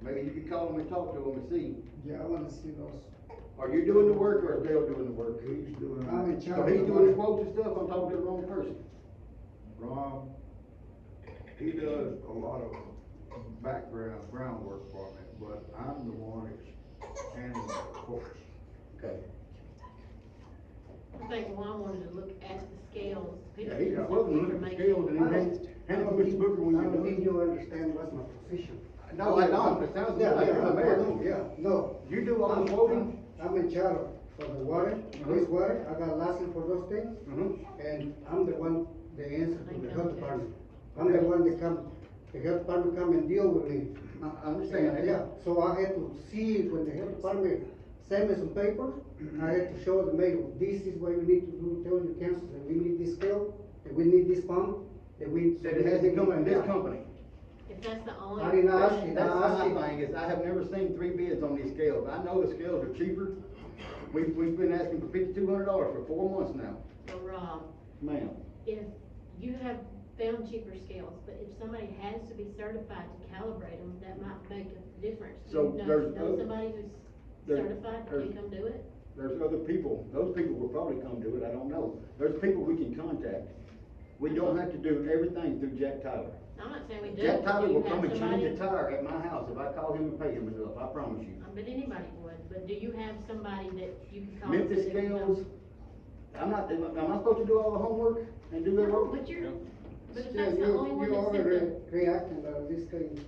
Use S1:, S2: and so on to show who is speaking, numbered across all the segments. S1: Maybe you could call them and talk to them and see,
S2: Yeah, I wanna see those,
S1: are you doing the work or is Dale doing the work?
S3: He's doing.
S2: I'm in
S1: So
S2: charge.
S1: he's doing the quotes and stuff, I'm talking to the wrong person.
S3: Rob, he does a lot of background, groundwork for me, but I'm the one that's handling the course.
S1: Okay.
S4: I think Juan wanted to look at the scales.
S1: Yeah, he's quoting, look at the scales and
S5: I don't-
S1: he
S5: I
S1: hands
S5: don't
S1: Mr.
S5: think-
S1: Booker when
S5: I
S1: you're
S5: don't think
S1: done.
S5: you understand what's my position.
S1: No, I don't, it sounds
S5: Yeah,
S1: like
S5: yeah,
S1: you're the
S5: I- I
S1: mayor.
S5: know, Yeah, no.
S1: You do all
S5: I'm-
S1: the quoting?
S5: I'm I'm in charge of- for the water,
S1: Mhm.
S5: wastewater, I got license for those things,
S1: Mhm.
S5: and I'm the one, the answer to the health
S4: Okay.
S5: department. I'm the one that come, the health department come and deal with me.
S1: I, I understand that.
S5: Yeah, so I had to see it when the health department sent me some paper, I had to show the mayor, this is what you need to do, tell your council, that we need this scale, that we need this pump, that we.
S1: That it has to come in this
S5: Yeah.
S1: company.
S4: If that's the
S5: I did
S4: only,
S5: not ask
S1: That's,
S5: you, I
S1: that's
S5: asked
S1: my
S5: you.
S1: thing, is I have never seen three bids on these scales, I know the scales are cheaper. We've, we've been asking for fifty-two hundred dollars for four months now.
S4: so Rob,
S1: Ma'am.
S4: if you have found cheaper scales, but if somebody has to be certified to calibrate them, that might make a difference. Do
S1: So
S4: you know-
S1: there's
S4: Know
S1: no-
S4: somebody who's
S1: there-
S4: certified, can
S1: there's-
S4: come do it?
S1: There's other people, those people will probably come do it, I don't know. There's people we can contact. We don't have to do everything through Jack Tyler.
S4: I'm not saying we do.
S1: Jack
S4: but
S1: Tyler
S4: do you
S1: will come
S4: have
S1: and change
S4: somebody-
S1: a tire at my house if I call him and pay him enough, I promise you.
S4: I bet anybody would, but do you have somebody that you can call? and
S1: Memphis
S4: say, "No."
S1: scales, I'm not, am I am I supposed to do all the homework and do that
S4: No,
S1: work?
S4: but you're, but if
S5: Yeah,
S4: that's the only
S5: you,
S4: one
S5: you
S4: that's in
S5: already
S4: the,
S5: reacting about this thing.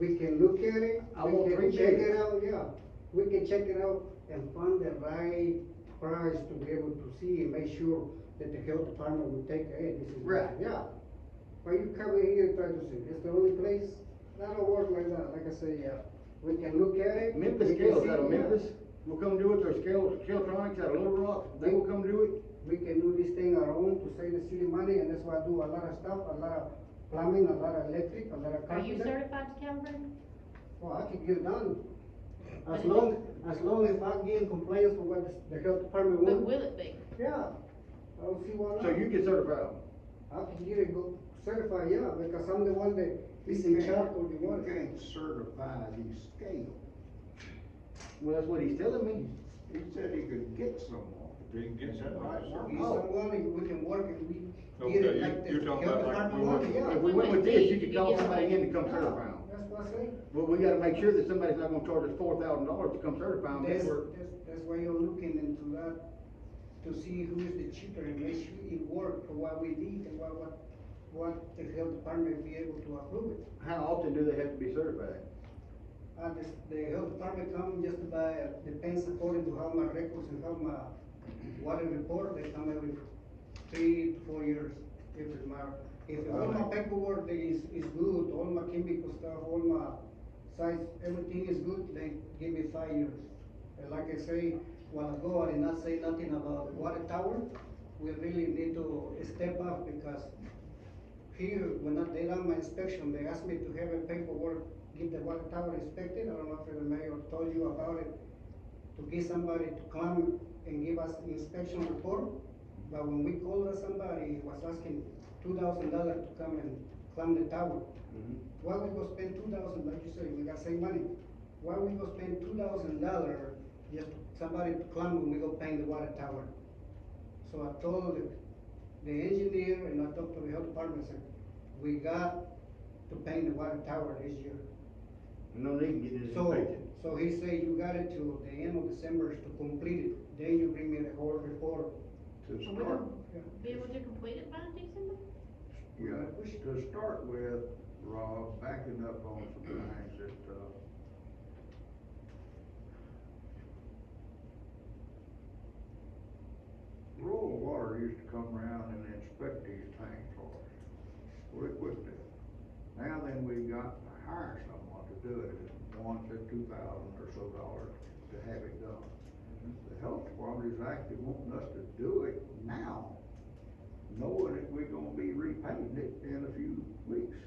S5: We can look at it,
S1: I want
S5: we
S1: three
S5: can check it
S1: bids.
S5: out, yeah, we can check it out and find the right price to be able to see and make sure that the health department will take, hey, this is.
S1: Right.
S5: Yeah. Why you come in here and try to say, it's the only place, that don't work like that, like I say, yeah, we can look at it.
S1: Memphis
S5: we can
S1: scales
S5: see,
S1: out of
S5: yeah.
S1: Memphis will come do it, there's scales, Scaletronics out of Little Rock, they will come do it.
S5: we can do this thing our own to save the city money, and that's why I do a lot of stuff, a lot of plumbing, a lot of electric, a lot of
S4: are you
S5: carpenter.
S4: certified to calibrate?
S5: Well, I can get done, as
S4: But-
S5: long, as long as I get in compliance with what the- the health department
S4: But
S5: wants.
S4: will it be?
S5: Yeah, I don't see why
S1: So you
S5: not,
S1: get certified.
S5: I can get it go certified, yeah, because I'm the one that is in charge of the
S3: You
S5: water.
S3: can't certify these scales.
S1: Well, that's what he's telling me.
S3: He said he could get someone.
S6: Didn't get
S3: That
S6: that
S3: might
S6: right.
S3: work.
S5: He's the one, that we can work it, we get
S6: Okay,
S5: it
S6: you-
S5: like the
S6: you're
S5: health
S6: talking about like
S5: department
S6: we
S5: wants,
S6: want-
S5: yeah.
S1: If we went with this, you could call somebody in to come
S5: Yeah,
S1: certify them.
S5: That's what I say.
S1: Well, we gotta make sure that somebody's not gonna charge us four thousand dollars to come certify them.
S5: That's,
S1: That's where,
S5: that's, that's why you're looking into that, to see who is the cheaper and make sure it work for what we need and what, what, what the health department be able to approve it.
S1: how often do they have to be certified?
S5: Uh, the, the health department come just by, depends according to how my records and how my water report, they come every three to four years, every month. If all my paperwork is, is good, all my chemical stuff, all my size, everything is good, they give me five years. And like I say, while ago, I did not say nothing about water tower, we really need to step up because here, when I- they done my inspection, they asked me to have a paperwork, get the water tower inspected, I don't know if the mayor told you about it, to get somebody to come and give us inspection report, but when we called us, somebody was asking two thousand dollars to come and climb the tower. Why we go spend two thousand, like you say, we got save money, why we go spend two thousand dollar just somebody to climb when we go paint the water tower? So I told the- the engineer and I talked to the health department, said, we got to paint the water tower this year.
S1: No need to get this
S5: So,
S1: inspected.
S5: so he said, you got it till the end of December to complete it, then you bring me the whole report.
S3: To
S4: Are we
S3: start,
S4: gonna be able to complete it by December?
S3: yeah, to start with, Rob, backing up on some things that, uh, rural water used to come around and inspect these things for us. We quit that. Now then, we got to hire someone to do it, it's one to two thousand or so dollars to have it done. The health department is actually wanting us to do it now, knowing that we're gonna be repainting it in a few weeks.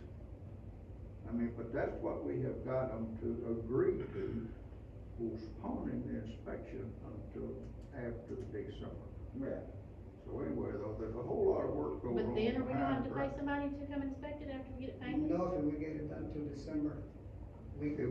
S3: I mean, but that's what we have got them to agree to, postponing the inspection until after December.
S1: Right.
S3: So anyway, though, there's a whole lot of work going on.
S4: But then are we gonna have to pay
S3: behind the-
S4: somebody to come inspect it after we get it painted?
S5: No, if we get it done till December. We,